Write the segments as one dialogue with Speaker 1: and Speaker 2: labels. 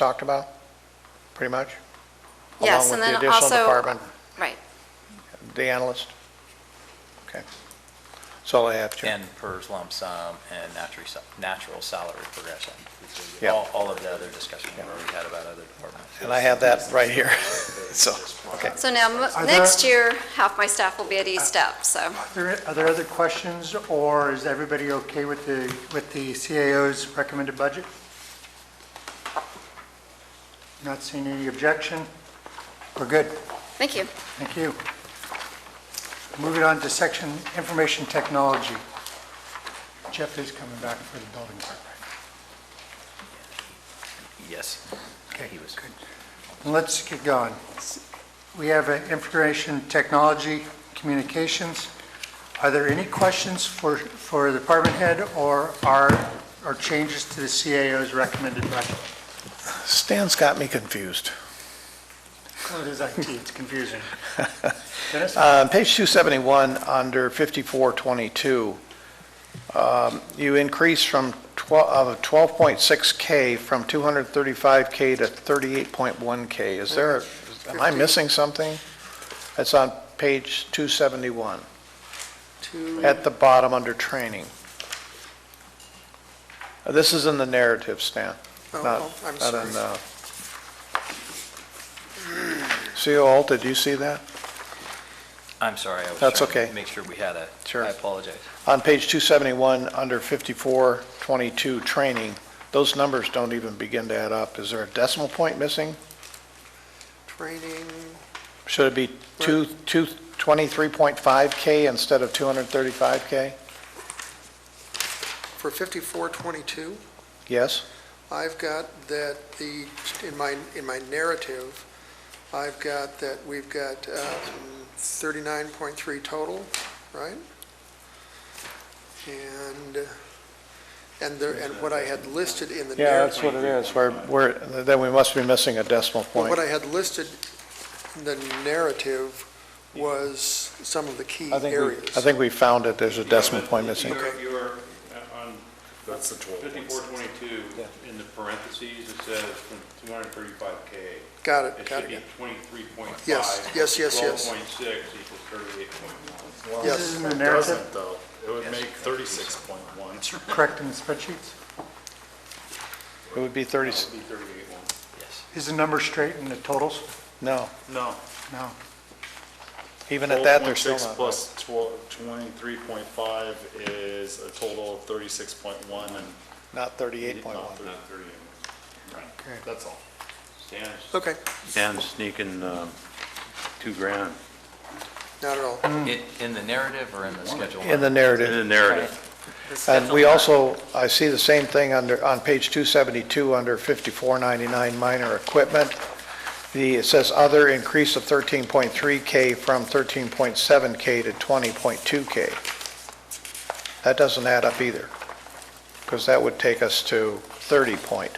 Speaker 1: talked about, pretty much?
Speaker 2: Yes, and then
Speaker 1: Along with the
Speaker 2: also-
Speaker 1: additional department,
Speaker 2: Right,
Speaker 1: the analyst? Okay. That's all I have, Chair.
Speaker 3: and PERS lump sum and natural, sa- natural salary progression.
Speaker 1: Yeah.
Speaker 3: All, all of the other discussion we've already had about other departments.
Speaker 1: And I have that right here, so, okay.
Speaker 2: so now, mo-
Speaker 4: Are there-
Speaker 2: next year, half my staff will be at each step, so.
Speaker 4: Are there- Are there other questions, or is everybody okay with the, with the CAO's recommended budget? Not seeing any objection? We're good.
Speaker 2: Thank you.
Speaker 4: Thank you. Moving on to section information technology. Jeff is coming back for the building part.
Speaker 3: Yes.
Speaker 4: Okay,
Speaker 3: He was-
Speaker 4: good. Let's get going. We have uh, information technology communications. Are there any questions for, for the department head or are, or changes to the CAO's recommended budget?
Speaker 1: Stan's got me confused.
Speaker 4: Well, it is IT, it's confusing. Dennis?
Speaker 1: Uh, Page 271, under 5422, um, you increase from 12 of 12.6K from 235K to 38.1K. Is there, a- am I missing something? That's on page 271, at the bottom under training. Uh, This is in the narrative, Stan.
Speaker 5: Oh,
Speaker 1: not-
Speaker 5: oh, I'm
Speaker 1: not in,
Speaker 5: sorry.
Speaker 1: uh, CO Alta, do you see that?
Speaker 3: I'm sorry, I was trying
Speaker 1: That's
Speaker 3: to
Speaker 1: okay.
Speaker 3: make sure we had a,
Speaker 1: Sure.
Speaker 3: I apologize.
Speaker 1: On page 271, under 5422, training, those numbers don't even begin to add up. Is there a decimal point missing?
Speaker 5: Training,
Speaker 1: Should it be two two 23.5K instead of 235K?
Speaker 5: for 5422,
Speaker 1: Yes?
Speaker 5: I've got that the, in my, in my narrative, I've got that we've got um, 39.3 total, right? And, and there, and what I had listed in the narrative.
Speaker 1: is. We're, we're- then we must be missing a decimal
Speaker 5: Well,
Speaker 1: point.
Speaker 5: What I had listed in the narrative was some of the key
Speaker 1: I think we,
Speaker 5: areas.
Speaker 1: I think we found it. There's a decimal point missing.
Speaker 6: You're, you're uh, on
Speaker 7: That's the twelve point
Speaker 6: fifty-four
Speaker 7: six.
Speaker 6: twenty-two, in the parentheses, it says from two hundred and thirty-five K.
Speaker 5: Got
Speaker 6: It
Speaker 5: it, got
Speaker 6: should
Speaker 5: it.
Speaker 6: be twenty-three point five.
Speaker 5: Yes, yes, yes, yes.
Speaker 6: Twelve point six equals thirty-eight point one.
Speaker 4: This is
Speaker 5: Yes,
Speaker 4: in the
Speaker 7: It
Speaker 4: narrative,
Speaker 7: doesn't though. It would make thirty-six point one.
Speaker 4: correct in the spreadsheets?
Speaker 1: It would be 30,
Speaker 6: It'd be thirty-eight one.
Speaker 3: Yes.
Speaker 4: Is the number straight in the totals?
Speaker 1: no,
Speaker 7: No.
Speaker 4: No.
Speaker 1: even at that, they're still
Speaker 7: 12.6
Speaker 1: not. right.
Speaker 7: plus twelve, twenty-three point five is a total of thirty-six point one and.
Speaker 1: Not 38.1.
Speaker 7: not thirty- Right, that's all.
Speaker 6: Stan's,
Speaker 5: okay,
Speaker 8: And sneaking um, two grand
Speaker 5: not at all.
Speaker 3: In, in the narrative or in the schedule?
Speaker 1: In the narrative.
Speaker 8: in the narrative.
Speaker 1: And we also, I see the same thing under, on page 272, under 5499 minor equipment. The, it says other increase of 13.3K from 13.7K to 20.2K. That doesn't add up either, because that would take us to 30 point,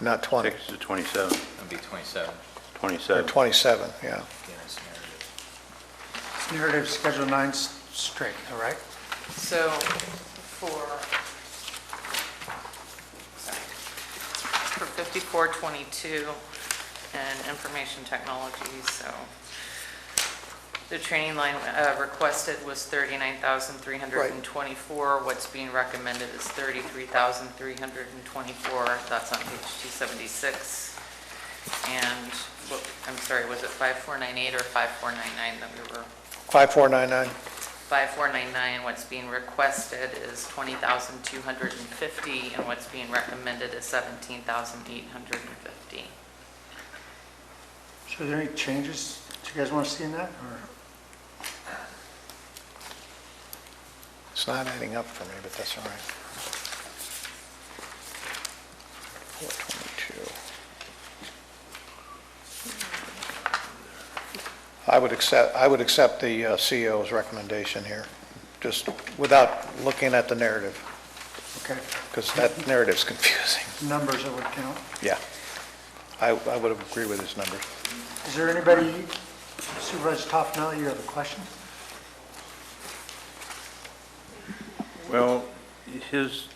Speaker 1: not 20,
Speaker 8: Six to 27,
Speaker 3: It'd be 27,
Speaker 1: or
Speaker 8: 27.
Speaker 1: 27, yeah.
Speaker 3: again, it's narrative.
Speaker 4: Narrative Schedule 9's straight, all right?
Speaker 9: So for, sorry, for fifty-four twenty-two and information technology, so the training line uh, requested was thirty-nine thousand three hundred and twenty-four. What's being recommended is thirty-three thousand three hundred and twenty-four. That's on page two seventy-six. And, what- I'm sorry, was it five-four-nine-eight or five-four-nine-nine that we were
Speaker 1: 5499,
Speaker 9: 5499, what's being requested is 20,250, and what's being recommended is 17,850.
Speaker 4: So are there any changes that you guys want to see in that, or?
Speaker 1: it's not adding up for me, but that's all right. 422. I would accept, I would accept the uh, CEO's recommendation here, just without looking at the narrative,
Speaker 4: Okay,
Speaker 1: because that narrative's confusing.
Speaker 4: numbers that would count.
Speaker 1: Yeah. I, I would agree with his numbers.
Speaker 4: Is there anybody, Supervisor Toffenali, you have a question?
Speaker 8: Well, his